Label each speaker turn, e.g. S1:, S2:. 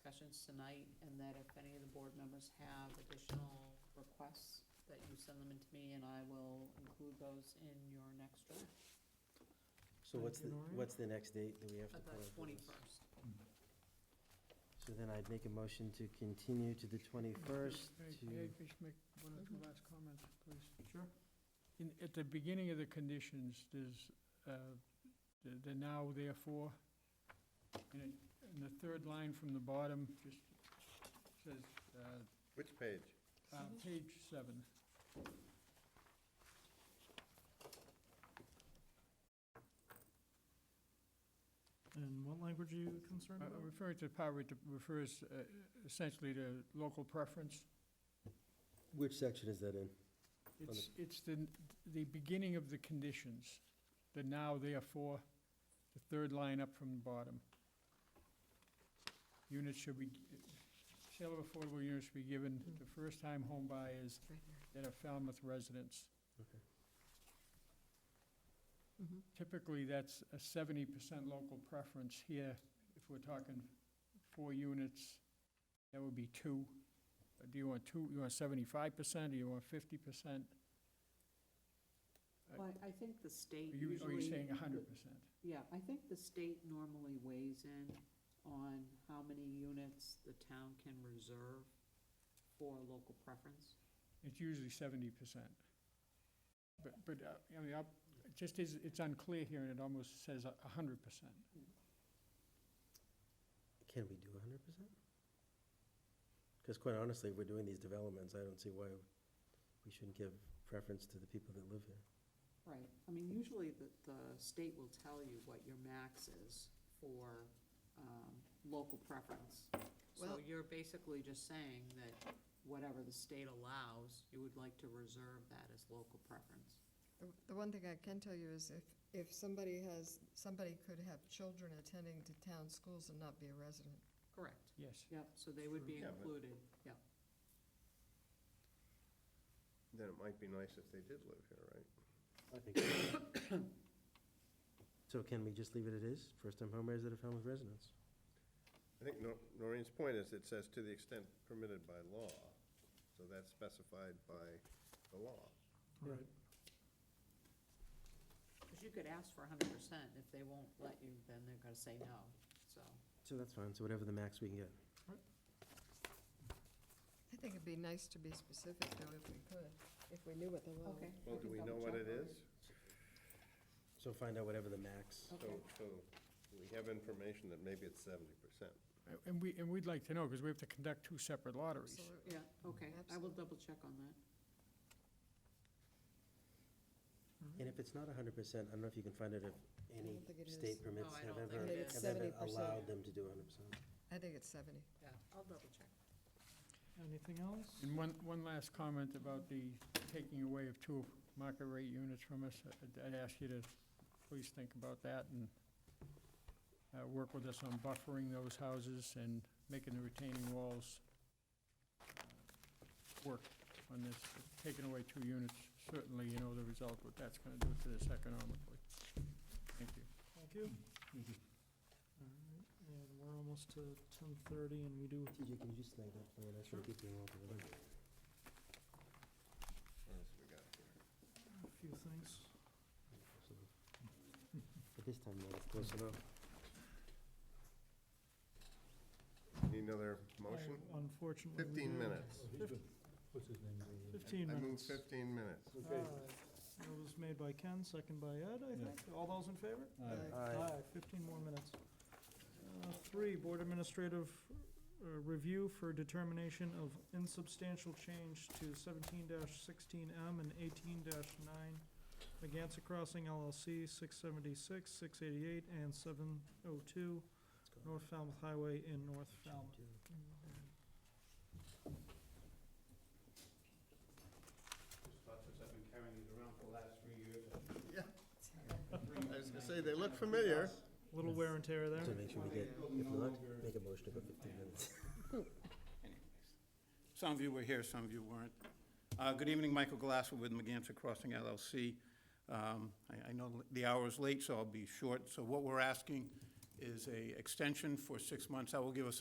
S1: questions um, tonight, and that if any of the board members have additional requests, that you send them in to me, and I will include those in your next draft.
S2: So what's the,
S3: January?
S2: what's the next date that we have to plan?
S1: About
S2: for this?
S1: Uh, twenty-first.
S2: So then I'd make a motion to continue to the twenty-first
S4: May- May I
S2: to,
S4: just make one or two last comments, please?
S3: Sure.
S4: In, at the beginning of the conditions, there's, uh, the the now therefore, and it- and the third line from the bottom just says, uh,
S5: Which page?
S4: uh,
S1: Mm-hmm.
S4: page seven.
S3: And what language are you concerned
S4: Uh,
S3: about?
S4: Referring to power it refers uh, essentially to local preference.
S2: which section is that in?
S4: It's, it's the, the beginning of the conditions, the now therefore, the third line up from the bottom. Units should be, sale of affordable units should be given to first-time home buyers that are Falmouth residents.
S2: Okay.
S1: Mhm.
S4: Mm-hmm. Typically, that's a seventy percent local preference here. If we're talking four units, that would be two. Uh, Do you want two, you want seventy-five percent, or you want fifty percent?
S1: Well, I think the state
S4: Are you, are you
S1: usually-
S4: saying hundred percent?
S1: Yeah, I think the state normally weighs in on how many units the town can reserve for local preference.
S4: It's usually seventy percent. But, but, uh, I mean, I'll- it just is, it's unclear here, and it almost says a hundred percent.
S2: Can we do hundred percent? Because quite honestly, if we're doing these developments, I don't see why we shouldn't give preference to the people that live here.
S1: Right. I mean, usually the, the state will tell you what your max is for, um, local preference. So
S6: Well-
S1: you're basically just saying that whatever the state allows, you would like to reserve that as local preference.
S6: The- The one thing I can tell you is if, if somebody has, somebody could have children attending to town schools and not be a resident.
S1: Correct.
S4: Yes.
S1: Yep, so they would be
S5: Yeah, but-
S1: included, yep.
S5: Then it might be nice if they did live here, right?
S2: I think. So can we just leave it at is, first-time homebuyers that are Falmouth residents?
S5: I think Nor- Noreen's point is, it says to the extent permitted by law, so that's specified by the law.
S3: Right.
S1: Because you could ask for hundred percent, if they won't let you, then they're gonna say no, so.
S2: So that's fine, so whatever the max we can get.
S6: I think it'd be nice to be specific though, if we could, if we knew what the law.
S5: Well, do we know what it is?
S2: So find out whatever the max.
S5: So, so we have information that maybe it's seventy percent.
S4: And we, and we'd like to know, because we have to conduct two separate lotteries.
S6: Absolutely.
S1: Yeah, okay, I will double check on that.
S2: And if it's not hundred percent, I don't know if you can find out if
S6: I
S2: any
S6: don't think it is.
S2: state permits
S1: No, I
S2: have
S1: don't
S2: ever,
S1: think it
S2: have
S1: is.
S2: ever allowed
S6: 70%.
S2: them to do hundred percent.
S6: I think it's seventy.
S1: Yeah, I'll double check.
S3: Anything else?
S4: And one, one last comment about the taking away of two market rate units from us. I'd- I'd ask you to please think about that and uh, work with us on buffering those houses and making the retaining walls uh, work on this. Taking away two units, certainly you know the result, what that's going to do to this economically. Thank you.
S3: Thank you. All
S5: Mm-hmm.
S3: right, And we're almost to ten thirty, and we do,
S2: TJ, can you just snag that plan? I should keep you involved with it.
S5: What else we got here?
S3: Uh, a few things.
S2: But this time, no, it's close enough.
S5: Need another motion?
S3: I- Unfortunately. we
S5: Fifteen
S3: do.
S5: minutes.
S3: Fifteen
S5: I move
S3: minutes.
S5: fifteen minutes.
S3: All right. It was made by Ken, second by Ed, I think. All those in favor?
S6: Aye.
S2: Aye.
S3: Fifteen more minutes. Uh, Three, board administrative uh, review for determination of insubstantial change to seventeen sixteen M and eighteen nine, Megantic Crossing LLC, six seventy-six, six eighty-eight, and seven oh two,
S2: Let's go.
S3: North Falmouth Highway in North Falmouth.
S7: I've been carrying these around for the last three years.
S5: I was gonna say, they look familiar.
S3: Little wear and tear
S2: So
S3: there.
S2: make sure we get, if not, make a motion about fifteen minutes.
S7: Some of you were here, some of you weren't. Uh, Good evening, Michael Glasser with McGantic Crossing LLC. Um, I I know the hour is late, so I'll be short. So what we're asking is a extension for six months. That will give us